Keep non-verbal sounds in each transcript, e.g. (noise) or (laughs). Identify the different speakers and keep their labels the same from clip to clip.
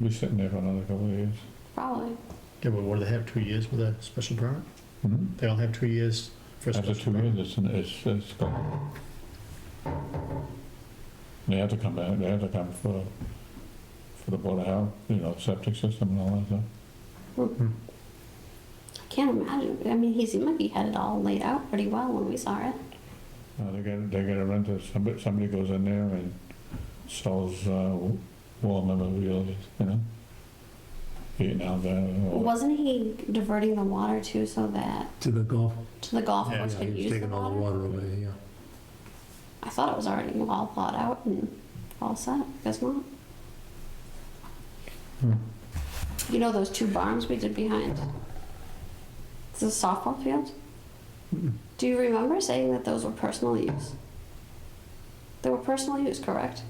Speaker 1: We're sitting there for another couple of years.
Speaker 2: Probably.
Speaker 3: Yeah, but what do they have, two years with a special permit?
Speaker 1: Mm-hmm.
Speaker 3: They all have two years for a
Speaker 1: After
Speaker 3: special
Speaker 1: two
Speaker 3: permit?
Speaker 1: years, it's, it's, it's gone. They have to come back, they have to come for, for the Board of Health, you know, septic system and all that stuff.
Speaker 2: I can't imagine. I mean, he seemed like he had it all laid out pretty well when we saw it.
Speaker 1: Uh, they get, they get a renter, somebody, somebody goes in there and sells, uh, wall memorabilia, you know? Eating out there.
Speaker 4: Oh.
Speaker 1: or-
Speaker 2: Wasn't he diverting the water too so that
Speaker 4: To the golf.
Speaker 2: to the golf
Speaker 3: Yeah,
Speaker 2: course
Speaker 4: Yeah, he
Speaker 2: could
Speaker 4: was
Speaker 2: use the
Speaker 4: taking all the
Speaker 2: water?
Speaker 4: water over there, yeah.
Speaker 2: I thought it was already all plowed out and all set. Guess not.
Speaker 4: Hmm.
Speaker 2: You know those two barns we did behind the softball field? Do you remember saying that those were personal use? They were personal use, correct?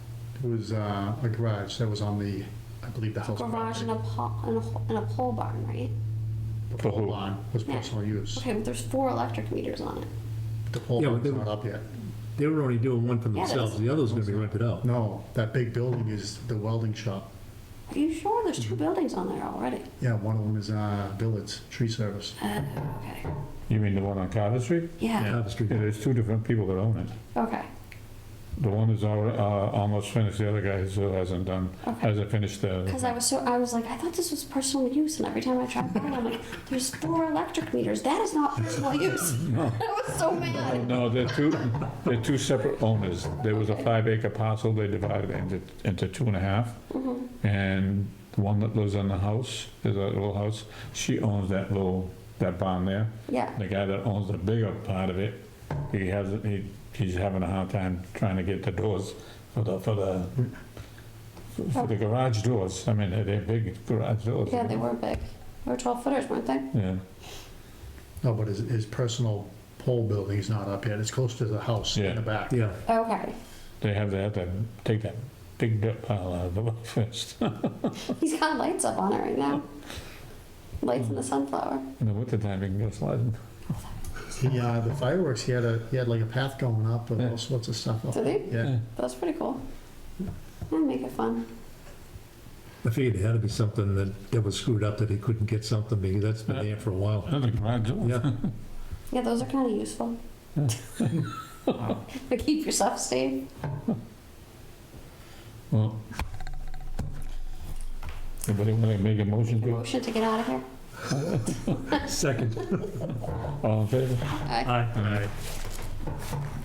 Speaker 3: It was uh, a garage that was on the, I believe, the house.
Speaker 2: Garage and a,
Speaker 3: property.
Speaker 2: po- and, a, ho- and a pole barn, right?
Speaker 3: The whole barn was
Speaker 2: Yeah.
Speaker 3: personal use.
Speaker 2: Okay, but there's four electric meters on it.
Speaker 3: The whole
Speaker 4: Yeah, but
Speaker 3: barn's
Speaker 4: they-
Speaker 3: not up yet.
Speaker 4: They were only doing one for
Speaker 2: Yeah,
Speaker 4: themselves,
Speaker 2: that's-
Speaker 4: the other's gonna be rented out.
Speaker 3: No, that big building is the welding shop.
Speaker 2: Are you sure there's two buildings on there already?
Speaker 3: Yeah, one of them is uh, Billet's Tree Service.
Speaker 2: Uh, okay.
Speaker 1: You mean the one on Carter Street?
Speaker 2: Yeah.
Speaker 4: Carter Street.
Speaker 1: Yeah, there's two different people that own it.
Speaker 2: Okay.
Speaker 1: The one is al- uh, almost finished, the other guy still hasn't done,
Speaker 2: Okay.
Speaker 1: hasn't finished
Speaker 2: Because
Speaker 1: the,
Speaker 2: I was so I was like I thought this was personal use, and every time I tried by, I'm like, there's four electric meters. That is not personal (laughs) use. I was so
Speaker 1: Oh,
Speaker 2: mad.
Speaker 1: no, they're two, they're two separate owners. There was a five acre parcel, they divided it into, into two and a half.
Speaker 2: Mm-hmm.
Speaker 1: And the one that lives in the house, is a little house, she owns that little, that barn there.
Speaker 2: Yeah.
Speaker 1: The guy that owns the bigger part of it, he has, he, he's having a hard time trying to get the doors for the, for the, for the garage doors. I mean, they're- they're big garage doors.
Speaker 2: Yeah, they were big. They were 12 footers, weren't they?
Speaker 1: Yeah,
Speaker 3: No, but his, his personal pole building is not up yet. It's close to the house in
Speaker 1: Yeah.
Speaker 3: the back.
Speaker 4: Yeah,
Speaker 2: Okay. (laughs)
Speaker 1: they have, they have to take that big dirt pile out of the (laughs) way first.
Speaker 2: He's got lights up on it right now. Lights in the sunflower.
Speaker 1: In the wintertime, you can get a slide.
Speaker 3: He, uh, the fireworks, he had a, he had like a path going up and
Speaker 1: Yeah.
Speaker 3: all sorts of stuff up.
Speaker 2: Did he?
Speaker 3: Yeah.
Speaker 2: That's pretty cool. And make it fun.
Speaker 4: I figured it had to be something that, that was screwed up, that he couldn't get something, because that's been there for a while.
Speaker 1: Another garage door.
Speaker 4: Yeah,
Speaker 2: Yeah, those are kind of useful. (laughs) to keep yourself safe.
Speaker 1: Well, anybody want to make a motion to it?
Speaker 2: Motion to get out of here.
Speaker 4: second.
Speaker 1: All in favor?
Speaker 2: Aye.
Speaker 4: Aye.
Speaker 1: Aye.